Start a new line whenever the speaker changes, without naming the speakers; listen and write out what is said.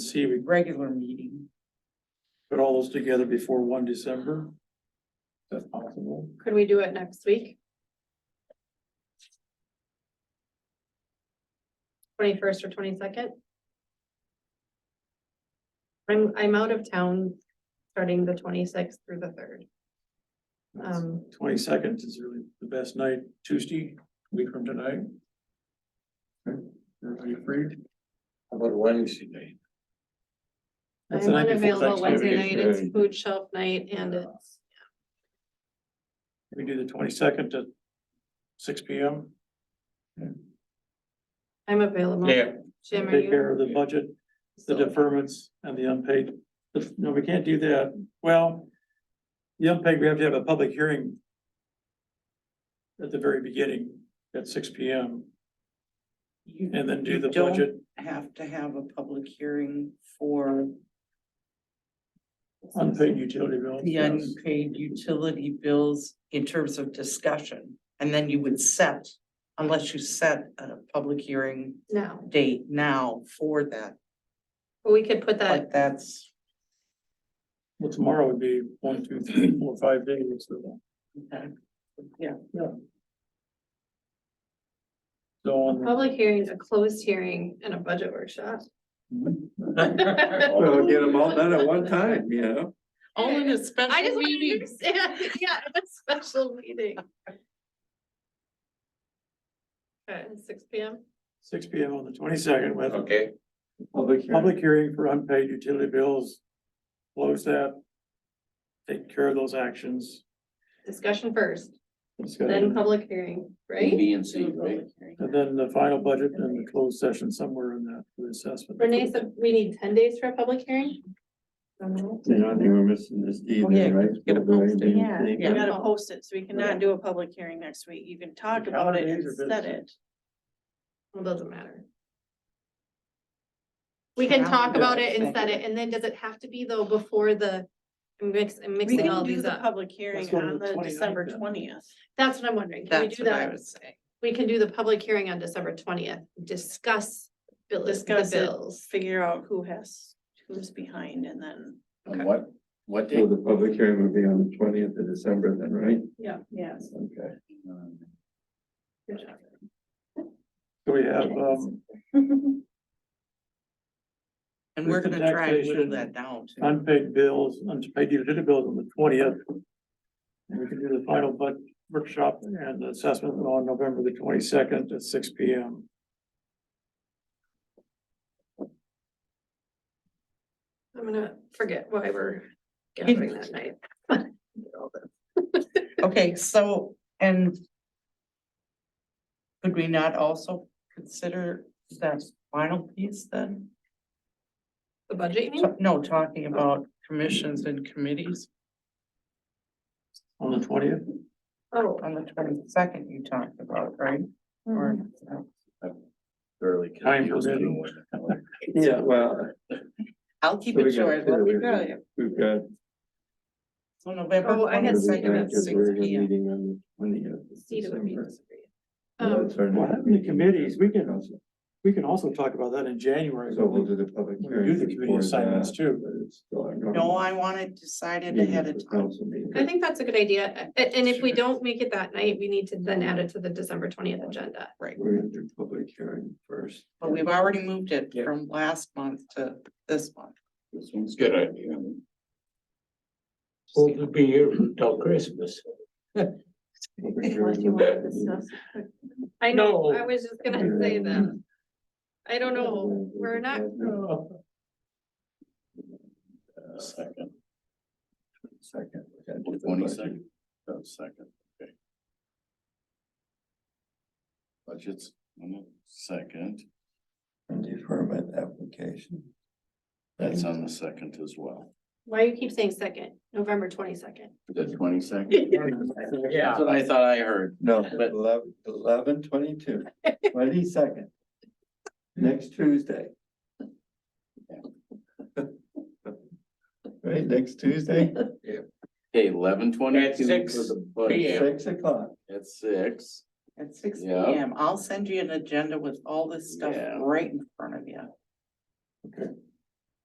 see, we
regular meeting.
put all those together before one December. If That's possible.
Could we do it next week? Twenty-first or twenty-second? I'm, I'm out of town starting the twenty-sixth through the third. Um,
Twenty-second is really the best night, Tuesday, week from tonight. Okay, Everybody free?
How about Wednesday night?
That's
I'm
the night before
unavailable Wednesday
Thanksgiving.
night, it's
Right.
food shelf night and it's,
We do the twenty-second at six P M.
I'm available.
Yeah.
Jim, are
Take
you?
care of the budget, the deferments and the unpaid. But, No, we can't do that. Well, the unpaid, we have to have a public hearing at the very beginning at six P M
You-
and then do
you
the
don't
budget.
Have to have a public hearing for
Unpaid utility bill.
the unpaid utility bills in terms of discussion. And then you would set, unless you set a public hearing
No,
date now for that,
but we could put that,
but that's,
Well, tomorrow would be one, two, three, four, five days. So
okay. yeah,
so on.
public hearing, a closed hearing and a budget workshop.
Well, get them all done at one time, you know?
all in a
I just
special
want to
meeting.
understand, yeah, a special meeting. Okay, six P M,
Six P M on the twenty-second with a
Okay. Public
public hearing for unpaid utility bills. Close that. Take care of those actions.
discussion first, then
discussion,
public hearing, right?
B and C, right?
And then the final budget and the closed session somewhere in that for the assessment.
Renee said we need ten days for a public hearing?
You know, I think we're missing this D
yeah,
then, right?
get a post it.
Yeah, you
Yeah.
gotta post it, so we cannot do a public hearing next week. You can talk about it and
Calendars are
set
busy.
it.
Well, doesn't matter. We can talk about it and set it, and then does it have to be though before the, I'm mix, I'm
We
mixing all
can do
these
the
up.
public hearing
go to
on
the
the
29th
December
then.
twentieth.
That's what I'm wondering, can we
That's
do
what I
that?
would say.
We can do the public hearing on December twentieth, discuss bill- the
Discuss it.
bills.
Figure out who has, who's behind and then,
On what, what day? The public hearing would be on the twentieth of December then, right?
Yeah.
yes.
Okay. Um,
So we have, um,
And we're
With the
gonna try and
taxation.
whittle that down too.
unpaid bills, unpaid utility bills on the twentieth. And we can do the final budget workshop and the assessment on November the twenty-second at six P M.
I'm gonna forget why we're gathering that night.
Okay, so, and could we not also consider that final piece then?
The budget, you mean?
Ta- No, talking about commissions and committees
On the twentieth,
Oh,
on the twenty-second you talked about, right? Or, uh,
Early.
Time permitting.
Yeah, well.
I'll keep
so we
it
got
short, let
two.
me tell you.
We've got.
So November
Oh, I had
twenty-second at
because
six
we're
P M.
meeting on the 20th of
Steve would be
December.
disagree.
Well,
Um,
that's our
What
next
happened to
meeting.
committees? We can-
Also,
we can also talk about that in January.
So we'll do the public
We
hearing.
do the committee
before
assignments
that,
too.
but it's still our
No,
normal
I want it decided
meeting
ahead
for
of time.
council meeting.
I think that's a good idea, and, and if we don't make it that night, we need to then add it to the December twentieth agenda.
We're gonna do public hearing first.
But we've already moved it
Yeah.
from last month to this month.
This one's good idea.
Well, it'll be here till Christmas.
Unless you want to discuss it.
I know,
No.
I was just gonna say that, I don't know, we're not,
Second. Second. Twenty second. Second, okay. Budgets, second. And deferment application. That's on the second as well.
why you keep saying second, November twenty-second?
The twenty second?
Yeah.
what I thought I heard. No, but eleven, eleven twenty-two, twenty second. Next Tuesday. Right, next Tuesday?
Okay, eleven twenty-two.
At six p.m..
Six o'clock.
At six.
At six P
Yeah.
M, I'll send you an agenda with all this stuff
Yeah.
right in